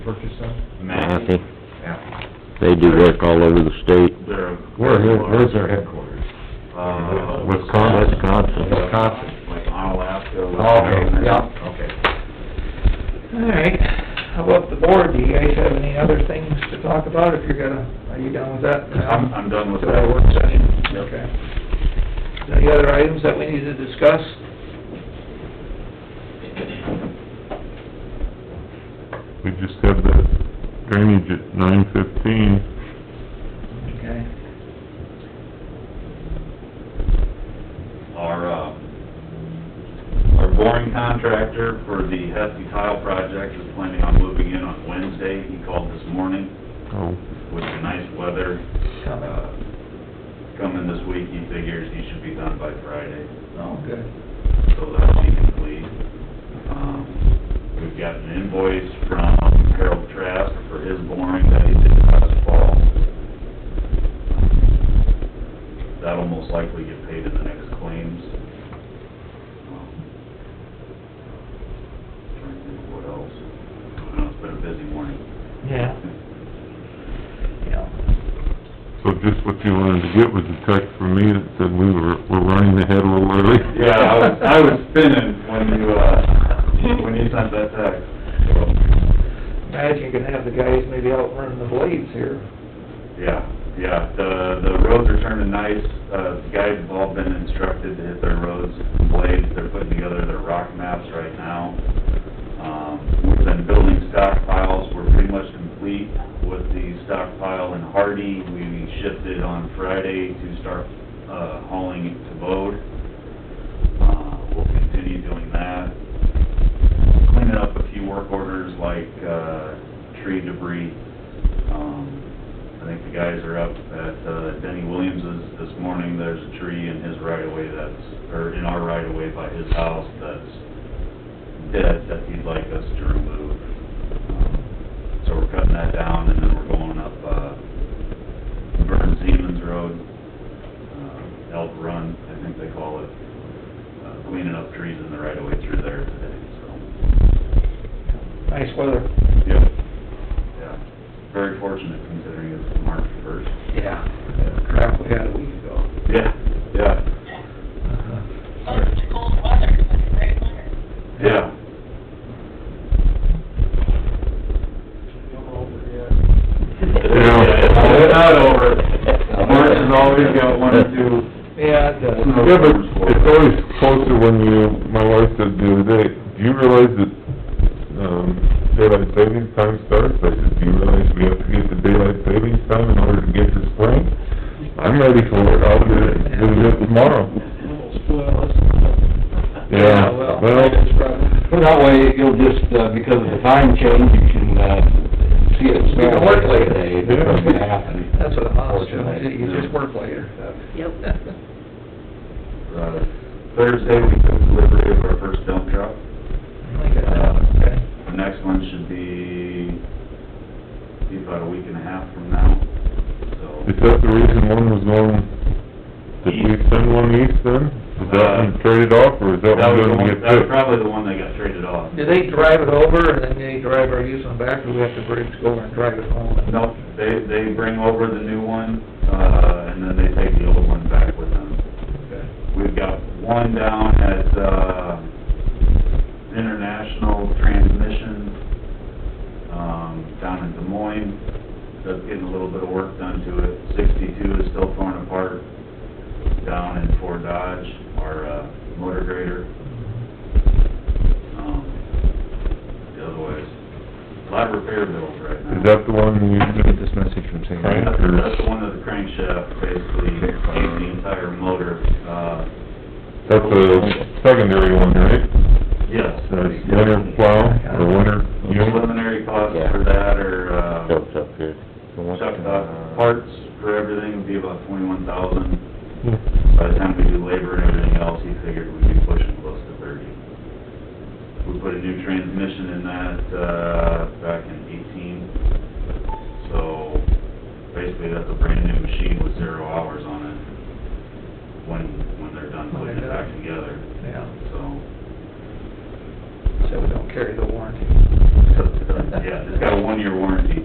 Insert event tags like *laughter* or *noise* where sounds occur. purchase them? Massey, Yeah. they do work all over the state. They're. Where, where's their headquarters? Uh. Wisconsin. Wisconsin. Wisconsin. Like Onalaska. Okay, yeah, okay. All right, how about the board, do you guys have any other things to talk about, if you're gonna, are you done with that? I'm, I'm done with So that work that. session? Yep. Okay. Any other items that we need to discuss? We just had the drainage at nine fifteen. Okay. Our, uh, our boring contractor for the Heskey Tile Project is planning on moving in on Wednesday. He called this morning Oh, with the nice weather, Coming. uh, coming this week. He figures he should be done by Friday. Oh, good. so that'll be complete. Um, We've got an invoice from Harold Trask for his boring that he did last fall. That'll most likely get paid in the next claims. Um, Trying to think what else. I know it's been a busy morning. Yeah. Yeah. so just what you wanted to get was a text from me that said we were, we're running ahead a little early? Yeah, I was, I was spinning when you, uh, when you sent that text. So, Imagine you can have the guys maybe out running the blades here. Yeah, yeah, the, the roads are turning nice, uh, the guys have all been instructed to hit their roads and blades, they're putting together their rock maps right now. Um, we've been building stockpiles, we're pretty much complete with the stockpile in Hardy, we shifted on Friday to start, uh, hauling it to Bode. Uh, we'll continue doing that, cleaning up a few work orders like, uh, tree debris. Um, I think the guys are up at uh, Denny Williams's this morning, there's a tree in his right of way that's, or in our right of way by his house that's dead that he'd like us to remove. Um, So we're cutting that down and then we're going up, uh, Vern Siemens Road, uh, Elk Run, I think they call it. uh, Cleaning up trees in the right of way through there today, so. Nice weather. Yep. Yeah, very fortunate considering it's March first. Yeah. Crap we had a week ago. Yeah, yeah. Uh-huh. Well, it was cold weather, it was great weather. Yeah, *laughs* yeah, it's not over. March has always got one or two. Yeah, it does. Yeah, but it's always closer when you, my wife said the other day, do you realize that, um, daylight savings time starts? I said, do you realize we have to get to daylight savings time in order to get to spring? I'm ready for it, I'll do it, do it tomorrow. Yeah, well, well, it's rough. Well, that way, you'll just, uh, because of the time change, you can, uh, see it, smell can it. work later. Today, That's what's gonna happen. That's what a hospital, Fortunately. is. you just work later. *laughs* Yep. Uh, Thursday, we took delivery of our first dump truck. Like that, okay. The next one should be, be about a week and a half from now, so. is that the reason one was going, did we send one east then? Is that one traded off, or is that That one was the gonna one, get that was fixed? probably the one that got traded off. Do they drive it over and then they drive our using them back, or we have to bridge over and drive it home? Nope, they, they bring over the new one, uh, and then they take the old one back with them. Okay. We've got one down at, uh, International Transmission, um, down in Des Moines. That's getting a little bit of work done to it. Sixty-two is still torn apart down in Fort Dodge, our, uh, motor grader. Um, Otherwise, a lot of repair bills right now. Is that the one you Get this message from St. Right. That's that's the one that the crankshaft basically ate the entire motor, uh, That's a secondary one, right? yes. That's winter plow, or winter unit? Preliminary costs for that are, uh, Jumps up here. chuck uh, parts for everything would be about twenty-one thousand. By the time we do labor and everything else, he figured we'd be pushing close to thirty. We put a new transmission in that, uh, back in eighteen. So basically, that's a brand new machine with zero hours on it when, when they're done putting it back together, Yeah, so. so we don't carry the warranty. Yeah, it's got a one-year warranty